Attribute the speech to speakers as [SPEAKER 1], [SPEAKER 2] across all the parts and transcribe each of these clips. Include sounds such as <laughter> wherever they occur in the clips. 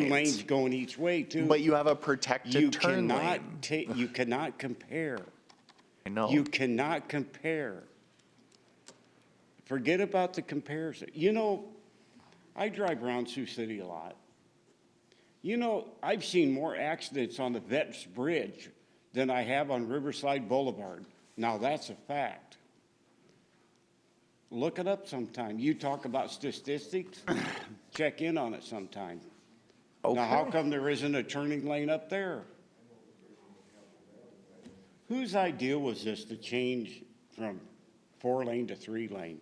[SPEAKER 1] turn
[SPEAKER 2] lanes.
[SPEAKER 1] lanes going each way too.
[SPEAKER 2] But you have a protected
[SPEAKER 1] You
[SPEAKER 2] turn
[SPEAKER 1] cannot
[SPEAKER 2] lane.
[SPEAKER 1] ta- you cannot compare.
[SPEAKER 2] I know.
[SPEAKER 1] You cannot compare. Forget about the comparison. You know, I drive around Sioux City a lot. You know, I've seen more accidents on the Vets Bridge than I have on Riverside Boulevard. Now, that's a fact. Look it up sometime. You talk about statistics, <coughs> check in on it sometime. Now, how
[SPEAKER 2] Okay.
[SPEAKER 1] come there isn't a turning lane up there? Whose idea was this to change from four lane to three lane?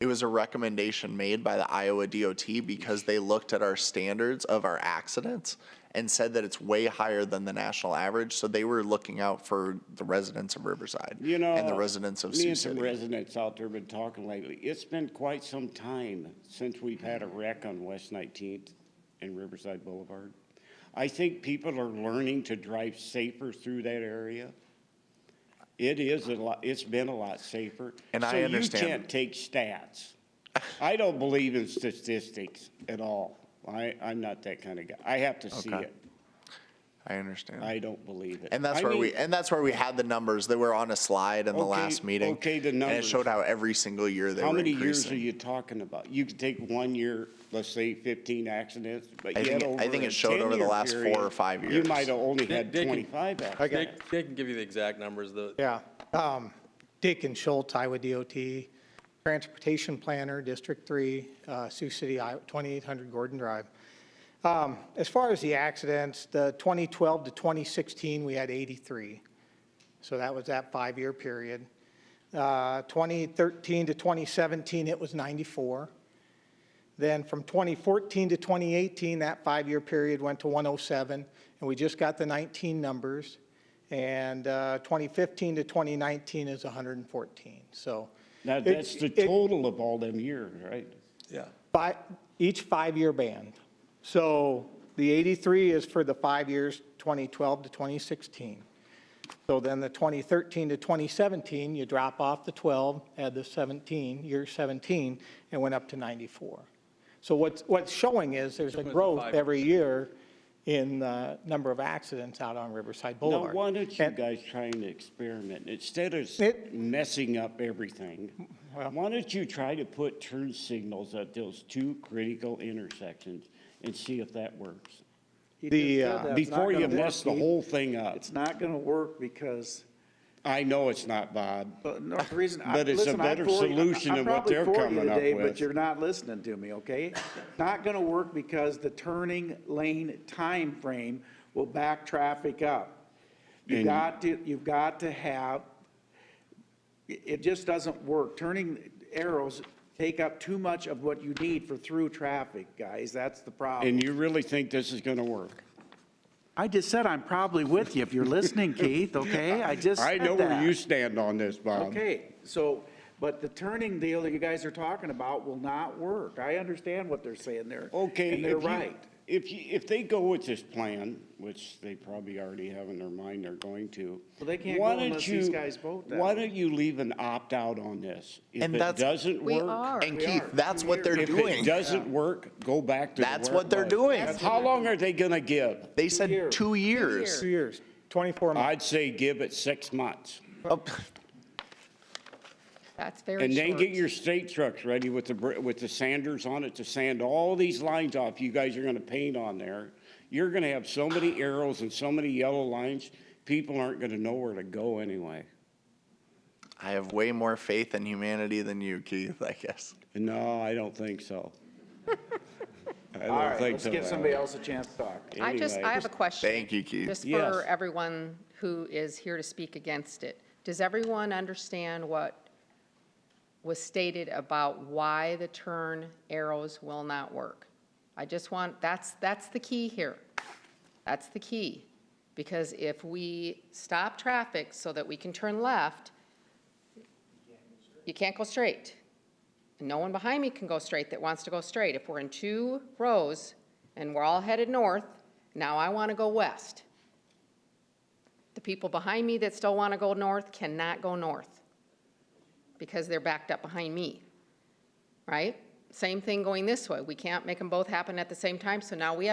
[SPEAKER 2] It was a recommendation made by the Iowa DOT because they looked at our standards of our accidents and said that it's way higher than the national average. So they were looking out for the residents of Riverside
[SPEAKER 1] You know, uh,
[SPEAKER 2] and the residents of
[SPEAKER 1] me
[SPEAKER 2] Sioux
[SPEAKER 1] and some
[SPEAKER 2] City.
[SPEAKER 1] residents out there been talking lately. It's been quite some time since we've had a wreck on West 19th and Riverside Boulevard. I think people are learning to drive safer through that area. It is a lot. It's been a lot safer.
[SPEAKER 2] And I
[SPEAKER 1] so
[SPEAKER 2] understand.
[SPEAKER 1] you can't take stats. I don't believe in statistics at all. I, I'm not that kind of guy. I have to see
[SPEAKER 2] Okay.
[SPEAKER 1] it.
[SPEAKER 2] I understand.
[SPEAKER 1] I don't believe it.
[SPEAKER 2] and that's
[SPEAKER 1] I
[SPEAKER 2] where
[SPEAKER 1] mean,
[SPEAKER 2] we and that's where we had the numbers that were on a slide in the
[SPEAKER 1] Okay,
[SPEAKER 2] last meeting.
[SPEAKER 1] okay, the
[SPEAKER 2] And it
[SPEAKER 1] numbers.
[SPEAKER 2] showed how every single year they
[SPEAKER 1] How
[SPEAKER 2] were
[SPEAKER 1] many years
[SPEAKER 2] increasing.
[SPEAKER 1] are you talking about? You could take one year, let's say fifteen accidents, but
[SPEAKER 2] I
[SPEAKER 1] yet
[SPEAKER 2] think-
[SPEAKER 1] over
[SPEAKER 2] I think
[SPEAKER 1] a
[SPEAKER 2] it showed over the
[SPEAKER 1] 10-year
[SPEAKER 2] last four
[SPEAKER 1] period,
[SPEAKER 2] or five
[SPEAKER 1] You
[SPEAKER 2] years.
[SPEAKER 1] might have only had
[SPEAKER 3] they can-
[SPEAKER 1] twenty-five
[SPEAKER 3] They,
[SPEAKER 1] accidents.
[SPEAKER 3] they can give you the exact numbers, the,
[SPEAKER 4] Yeah. Um, Dick and Schultz, Iowa DOT, Transportation Planner, District 3, uh, Sioux City, Iowa, 2800 Gordon Drive. Um, As far as the accidents, the 2012 to 2016, we had 83. So that was that five-year period. Uh, 2013 to 2017, it was 94. Then from 2014 to 2018, that five-year period went to 107, and we just got the 19 numbers. And uh, 2015 to 2019 is 114, so.
[SPEAKER 1] Now,
[SPEAKER 4] it-
[SPEAKER 1] that's the
[SPEAKER 4] it-
[SPEAKER 1] total of all them years, right?
[SPEAKER 3] yeah.
[SPEAKER 4] Fi each five-year band. So the 83 is for the five years, 2012 to 2016. So then the 2013 to 2017, you drop off the 12, add the 17, year 17, and went up to 94. So what's, what's showing is there's a growth
[SPEAKER 3] five.
[SPEAKER 4] every year in the number of accidents out on Riverside
[SPEAKER 1] Now,
[SPEAKER 4] Boulevard.
[SPEAKER 1] why don't you
[SPEAKER 4] And-
[SPEAKER 1] guys try and experiment? Instead of s-
[SPEAKER 4] It-
[SPEAKER 1] messing up everything, why don't you try to put turn signals at those two critical intersections and see if that works?
[SPEAKER 4] The, uh,
[SPEAKER 5] That's not
[SPEAKER 1] Before you
[SPEAKER 5] gonna work,
[SPEAKER 1] mess the
[SPEAKER 5] Keith.
[SPEAKER 1] whole thing up.
[SPEAKER 5] It's not going to work because,
[SPEAKER 1] I know it's not, Bob.
[SPEAKER 5] but no, the reason. I-
[SPEAKER 1] But it's a
[SPEAKER 5] listen, I'm
[SPEAKER 1] better
[SPEAKER 5] for you-
[SPEAKER 1] solution
[SPEAKER 5] I'm
[SPEAKER 1] than what
[SPEAKER 5] probably
[SPEAKER 1] they're
[SPEAKER 5] for you
[SPEAKER 1] coming up
[SPEAKER 5] today,
[SPEAKER 1] with.
[SPEAKER 5] But you're not listening to me, okay? Not going to work because the turning lane time frame will back traffic up. You
[SPEAKER 1] And-
[SPEAKER 5] got to, you've got to have, it it just doesn't work. Turning arrows take up too much of what you need for through traffic, guys. That's the problem.
[SPEAKER 1] And you really think this is gonna work?
[SPEAKER 5] I just said I'm probably with you if
[SPEAKER 1] <laughs>
[SPEAKER 5] you're listening, Keith, okay? I just
[SPEAKER 1] I
[SPEAKER 5] said
[SPEAKER 1] know where
[SPEAKER 5] that.
[SPEAKER 1] you um, stand on this, Bob.
[SPEAKER 5] Okay, so, but the turning deal that you guys are talking about will not work. I understand what they're saying there.
[SPEAKER 1] Okay.
[SPEAKER 5] And they're
[SPEAKER 1] if you-
[SPEAKER 5] right.
[SPEAKER 1] If you, if they go with this plan, which they probably already have in their mind they're going to.
[SPEAKER 5] Well, they can't
[SPEAKER 1] why
[SPEAKER 5] go
[SPEAKER 1] don't
[SPEAKER 5] unless these
[SPEAKER 1] you-
[SPEAKER 5] guys vote that
[SPEAKER 1] Why
[SPEAKER 5] way.
[SPEAKER 1] don't you leave an opt-out on this? If
[SPEAKER 2] And
[SPEAKER 1] it
[SPEAKER 2] that's-
[SPEAKER 1] doesn't
[SPEAKER 6] We
[SPEAKER 1] work.
[SPEAKER 6] are.
[SPEAKER 2] And Keith, that's what they're
[SPEAKER 1] If it
[SPEAKER 2] doing.
[SPEAKER 1] doesn't work, go back to.
[SPEAKER 2] That's
[SPEAKER 1] where it
[SPEAKER 2] what they're
[SPEAKER 1] was.
[SPEAKER 2] doing. That's
[SPEAKER 1] How long are they gonna give?
[SPEAKER 2] They said
[SPEAKER 5] years.
[SPEAKER 2] two years.
[SPEAKER 6] years.
[SPEAKER 4] two years, 24 months.
[SPEAKER 1] I'd say give it six months.
[SPEAKER 2] Oh, <laughs>
[SPEAKER 6] That's very
[SPEAKER 1] And
[SPEAKER 6] short.
[SPEAKER 1] then get your state trucks ready with the, br- with the sanders on it to sand all these lines off you guys are gonna paint on there. You're gonna have so many arrows and so many yellow lines, people aren't gonna know where to go anyway.
[SPEAKER 2] I have way more faith in humanity than you, Keith, I guess.
[SPEAKER 1] No, I don't think so. <laughs> I
[SPEAKER 5] All
[SPEAKER 1] don't
[SPEAKER 5] right,
[SPEAKER 1] think
[SPEAKER 5] let's
[SPEAKER 1] so.
[SPEAKER 5] give
[SPEAKER 1] Al.
[SPEAKER 5] somebody else a chance to talk.
[SPEAKER 6] I just,
[SPEAKER 1] anyway.
[SPEAKER 6] I have a question.
[SPEAKER 2] Thank you, Keith.
[SPEAKER 6] Just
[SPEAKER 1] Yes.
[SPEAKER 6] for everyone who is here to speak against it. Does everyone understand what was stated about why the turn arrows will not work? I just want, that's, that's the key here. That's the key. Because if we stop traffic so that we can turn left, you can't go straight. And no one behind me can go straight that wants to go straight. If we're in two rows and we're all headed north, now I want to go west. The people behind me that still want to go north cannot go north because they're backed up behind me, right? Same thing going this way. We can't make them both happen at the same time, so now we